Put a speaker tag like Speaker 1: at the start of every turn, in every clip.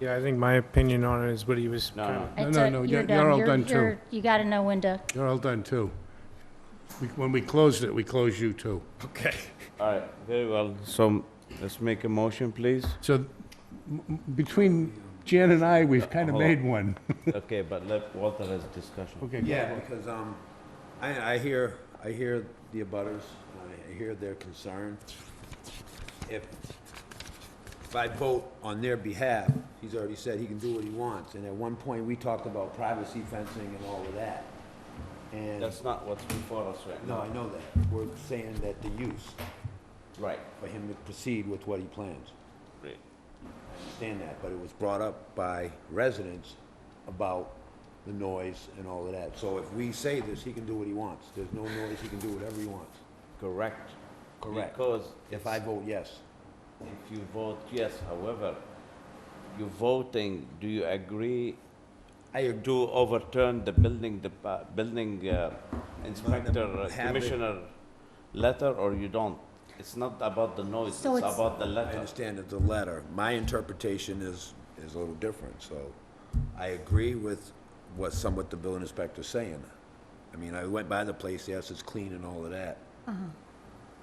Speaker 1: Yeah, I think my opinion on it is what he was
Speaker 2: No,
Speaker 1: kind
Speaker 2: no.
Speaker 1: of,
Speaker 3: No,
Speaker 4: It's
Speaker 3: no,
Speaker 4: a-
Speaker 3: no,
Speaker 4: you're
Speaker 3: you're- you're all
Speaker 4: You're-
Speaker 3: done, too.
Speaker 4: you're- You got to know when to,
Speaker 3: You're all done, too. We- When we closed it, we closed you, too.
Speaker 1: okay.
Speaker 2: All right, very well. So let's make a motion, please.
Speaker 3: So m- m- between Jan and I, we've kind of
Speaker 2: Hold on.
Speaker 3: made one.
Speaker 2: Okay, but let Walter has discussion.
Speaker 3: Okay.
Speaker 5: Yeah, because, um, I, I hear, I hear the abutters, I hear their concern. If, if I vote on their behalf, he's already said he can do what he wants, and at one point, we talked about privacy fencing and all of that. And,
Speaker 2: That's not what's before us right
Speaker 5: no,
Speaker 2: now.
Speaker 5: I know that, we're saying that the use,
Speaker 2: Right.
Speaker 5: for him to proceed with what he plans.
Speaker 2: Great.
Speaker 5: understand that, but it was brought up by residents about the noise and all of that. So if we say this, he can do what he wants. There's no noise, he can do whatever he wants.
Speaker 2: Correct.
Speaker 5: Correct.
Speaker 2: Because
Speaker 5: If I vote yes,
Speaker 2: If you vote yes, however, you voting, do you agree
Speaker 5: I ag-
Speaker 2: to overturn the building, the building uh, inspector, uh,
Speaker 5: Have it.
Speaker 2: commissioner letter, or you don't? It's not about the noise, it's
Speaker 4: So it's-
Speaker 2: about the
Speaker 5: I
Speaker 2: letter.
Speaker 5: understand that the letter, my interpretation is, is a little different, so I agree with what some, what the building inspector's saying. I mean, I went by the place, yes, it's clean and all of that.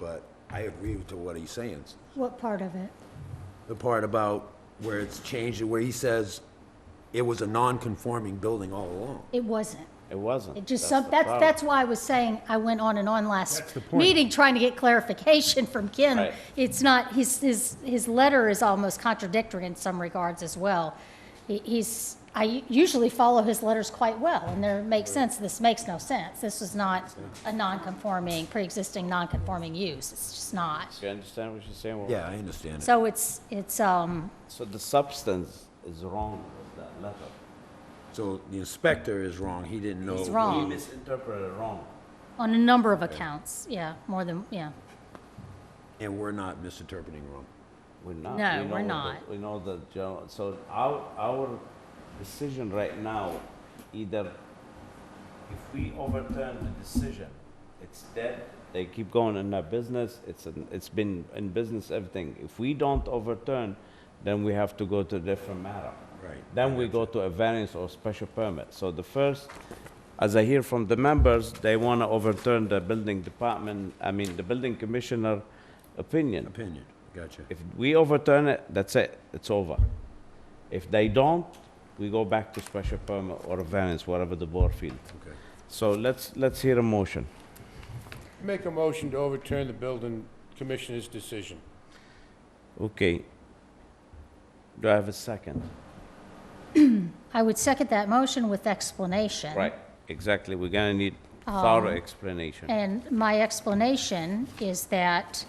Speaker 5: But I agree to what he's saying.
Speaker 4: what part of it?
Speaker 5: the part about where it's changed, where he says it was a non-conforming building all along.
Speaker 4: It wasn't.
Speaker 2: It wasn't.
Speaker 4: It just,
Speaker 2: the
Speaker 4: some- that's,
Speaker 2: problem.
Speaker 4: that's why I was saying I went on and on last meeting trying to get clarification from Ken.
Speaker 2: Right.
Speaker 4: It's not, his, his, his letter is almost contradictory in some regards as well. He- He's, I u- usually follow his letters quite well and there makes sense. This makes no sense. This is not a non-conforming, pre-existing non-conforming use. It's just not.
Speaker 2: You understand what you're saying? Walter?
Speaker 5: Yeah, I understand it.
Speaker 4: So it's, it's, um,
Speaker 2: So the substance is wrong with that letter.
Speaker 5: So the inspector is wrong, he didn't know.
Speaker 4: He's
Speaker 2: He
Speaker 4: wrong.
Speaker 2: misinterpreted it wrong.
Speaker 4: on a number of accounts, yeah, more than, yeah.
Speaker 5: And we're not misinterpreting wrong.
Speaker 2: We're not.
Speaker 4: No,
Speaker 2: We know
Speaker 4: we're
Speaker 2: the-
Speaker 4: not.
Speaker 2: We know the general, so our, our decision right now, either if we overturn the decision, it's dead. They keep going in their business, it's, an- it's been in business, everything. If we don't overturn, then we have to go to a different matter.
Speaker 5: Right.
Speaker 2: Then we go to a variance or special permit. So the first, as I hear from the members, they want to overturn the building department, I mean, the building commissioner opinion.
Speaker 5: Opinion, gotcha.
Speaker 2: If we overturn it, that's it, it's over. If they don't, we go back to special permit or a variance, whatever the board feels.
Speaker 5: Okay.
Speaker 2: So let's, let's hear a motion.
Speaker 3: Make a motion to overturn the building commissioner's decision.
Speaker 2: Okay. Do I have a second?
Speaker 4: I would second that motion with explanation.
Speaker 2: Right, exactly, we're gonna need thorough explanation.
Speaker 4: And my explanation is that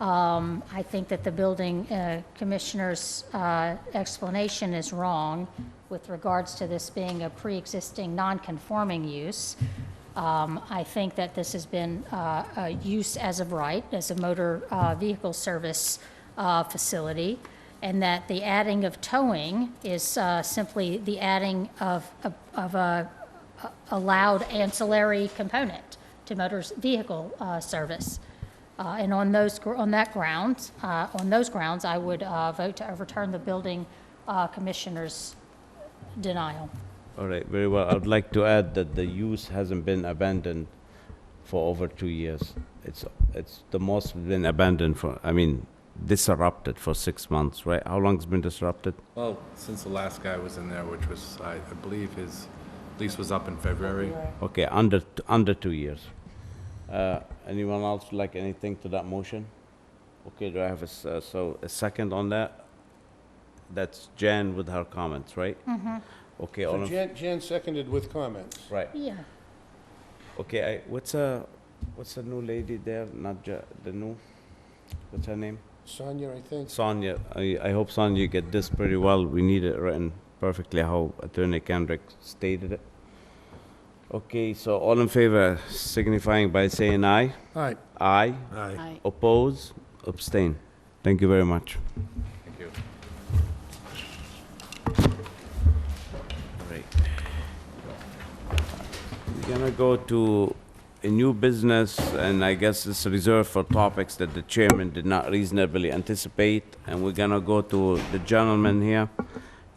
Speaker 4: um, I think that the building uh, commissioner's uh, explanation is wrong with regards to this being a pre-existing non-conforming use. Um, I think that this has been uh, a use as of right, as a motor uh, vehicle service uh, facility, and that the adding of towing is uh, simply the adding of, of- of a allowed ancillary component to motor vehicle uh, service. Uh, And on those, gr- on that grounds, uh, on those grounds, I would uh, vote to overturn the building uh, commissioner's denial.
Speaker 2: All right, very well, I'd like to add that the use hasn't been abandoned for over two years. It's, it's the most been abandoned for, I mean, disrupted for six months, right? How long's been disrupted?
Speaker 6: Well, since the last guy was in there, which was, I I believe his lease was up in February.
Speaker 2: Okay, under, t- under two years. Uh, Anyone else like anything to that motion? Okay, do I have a, s- uh, so a second on that? That's Jan with her comments, right? Mm-hmm. Okay, all
Speaker 7: So
Speaker 2: in,
Speaker 7: Jan, Jan seconded with comments.
Speaker 2: right,
Speaker 4: Yeah.
Speaker 2: okay, I, what's a, what's the new lady there, not Ja, the new, what's her name?
Speaker 7: Sonia, I think.
Speaker 2: Sonia, I, I hope Sonia you get this pretty well, we need it written perfectly how Attorney Kendrick stated it. Okay, so all in favor signifying by saying aye?
Speaker 3: All right,
Speaker 2: Aye.
Speaker 5: Aye.
Speaker 2: Oppose, abstain. Thank you very much.
Speaker 6: Thank you.
Speaker 2: Right. We're gonna go to a new business, and I guess it's reserved for topics that the chairman did not reasonably anticipate, and we're gonna go to the gentleman here.